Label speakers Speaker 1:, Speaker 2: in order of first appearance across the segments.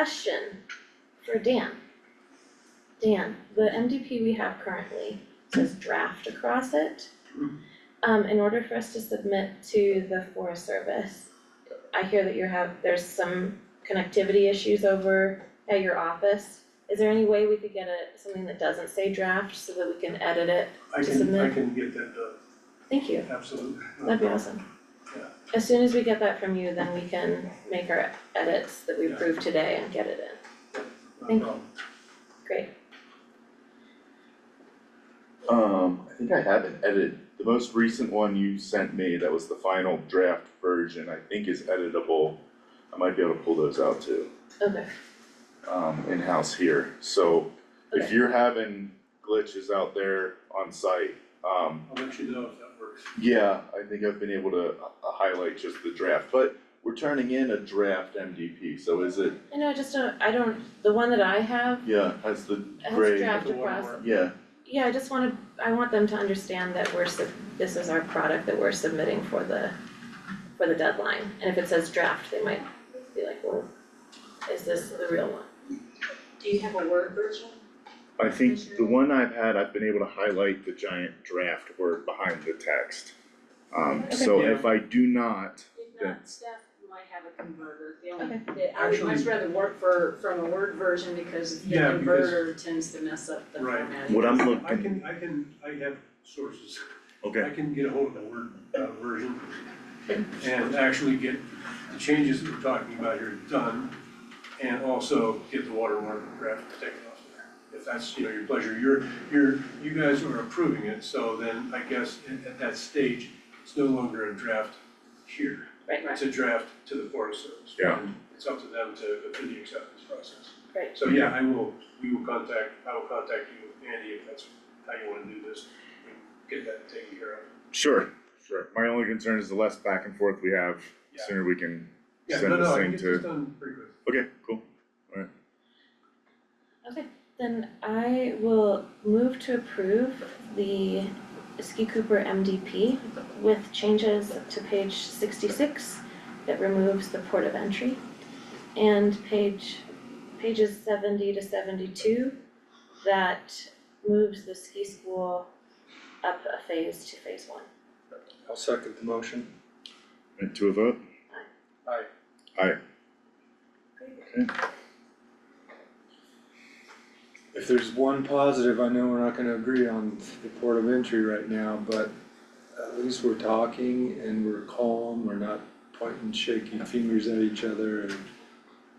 Speaker 1: question for Dan. Dan, the MDP we have currently says draft across it.
Speaker 2: Mhm.
Speaker 1: Um, in order for us to submit to the Forest Service, I hear that you have, there's some connectivity issues over at your office. Is there any way we could get a, something that doesn't say draft so that we can edit it?
Speaker 3: I
Speaker 1: To
Speaker 3: can, I
Speaker 1: submit.
Speaker 3: can get that done,
Speaker 1: Thank you,
Speaker 3: absolutely. No
Speaker 1: that'd be
Speaker 3: problem.
Speaker 1: awesome.
Speaker 3: Yeah.
Speaker 1: As soon as we get that from you, then we can make our edits that we
Speaker 3: Yeah.
Speaker 1: approved today and get it in.
Speaker 3: No
Speaker 1: Thank you.
Speaker 3: problem.
Speaker 1: Great,
Speaker 4: Um, I think I have it edited. The most recent one you sent me, that was the final draft version, I think is editable. I might be able to pull those out too,
Speaker 1: okay,
Speaker 4: um, in-house here. So if
Speaker 1: Okay.
Speaker 4: you're having glitches out there on site, um,
Speaker 3: I'll let you know if that works.
Speaker 4: yeah, I think I've been able to uh, highlight just the draft, but we're turning in a draft MDP, so is it,
Speaker 1: I know, I just don't, I don't, the one that I have
Speaker 4: yeah, has the
Speaker 1: has
Speaker 4: gray,
Speaker 1: draft
Speaker 3: The one
Speaker 1: across.
Speaker 3: where-
Speaker 4: yeah,
Speaker 1: Yeah, I just wanna, I want them to understand that we're sub, this is our product that we're submitting for the, for the deadline. And if it says draft, they might be like, well, is this the real one?
Speaker 2: Do you have a Word version?
Speaker 4: I think the one I've had, I've been able to highlight the giant draft word behind the text. Um, so
Speaker 3: Okay.
Speaker 4: if I do not,
Speaker 2: If
Speaker 4: Yeah.
Speaker 2: not, staff might have a converter, the only,
Speaker 1: Okay.
Speaker 2: the- I would much
Speaker 3: Actually-
Speaker 2: rather work for, from a Word version because the
Speaker 3: Yeah, because-
Speaker 2: converter tends to mess up the
Speaker 3: Right.
Speaker 2: formatting.
Speaker 4: what I'm
Speaker 3: I
Speaker 4: looking,
Speaker 3: can, I can, I have sources. I
Speaker 4: okay,
Speaker 3: can get a hold of the Word, uh, version and actually get the changes that we're talking about here done. And also get the watermark draft taken off there, if that's, you know, your pleasure. You're, you're, you guys are approving it, so then I guess at, at that stage, it's no longer a draft here.
Speaker 1: Right.
Speaker 3: It's a draft to the Forest Service.
Speaker 4: Yeah.
Speaker 3: And It's up to them to go through the acceptance process.
Speaker 1: Right.
Speaker 3: So yeah, I will, we will contact, I will contact you, Andy, if that's how you wanna do this, and get that taken care of.
Speaker 4: sure, sure. My only concern is the less back and forth we have, the
Speaker 3: Yeah.
Speaker 4: sooner we can
Speaker 3: Yeah,
Speaker 4: send
Speaker 3: no,
Speaker 4: this
Speaker 3: no, I
Speaker 4: thing
Speaker 3: can
Speaker 4: to.
Speaker 3: get this done pretty quick.
Speaker 4: Okay, cool.
Speaker 1: Then I will move to approve the Ski Cooper MDP with changes to page sixty-six that removes the port of entry and page, pages seventy to seventy-two that moves the ski school up a phase to phase one.
Speaker 5: I'll second the motion.
Speaker 4: And to a vote?
Speaker 3: Aye.
Speaker 4: Aye.
Speaker 5: If there's one positive, I know we're not gonna agree on the port of entry right now, but at least we're talking and we're calm, we're not pointing shaking fingers at each other and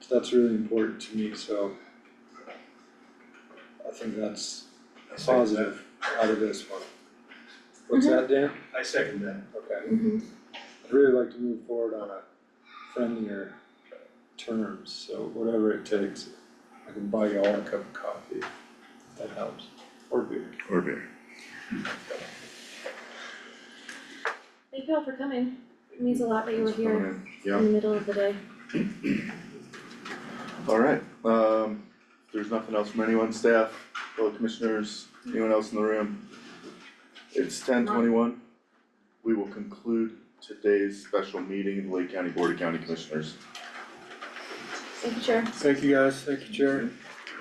Speaker 5: that's really important to me, so I think that's a positive out of this one. What's that, Dan?
Speaker 3: I second that.
Speaker 5: Okay,
Speaker 4: Mm-hmm.
Speaker 5: I'd really like to move forward on a friendlier terms, so whatever it takes, I can buy y'all a cup of coffee, that helps, or beer.
Speaker 4: Or beer.
Speaker 1: Thank you all for coming. It means a lot that you were
Speaker 4: Thanks for
Speaker 1: here
Speaker 4: coming in.
Speaker 1: in the middle of the day.
Speaker 4: Yeah, alright, um, if there's nothing else from anyone, staff, fellow commissioners, anyone else in the room? It's ten twenty-one. We will conclude today's special meeting of the Lake County Board of County Commissioners.
Speaker 1: Thank you, Chair.
Speaker 5: Thank you guys, thank you, Chair.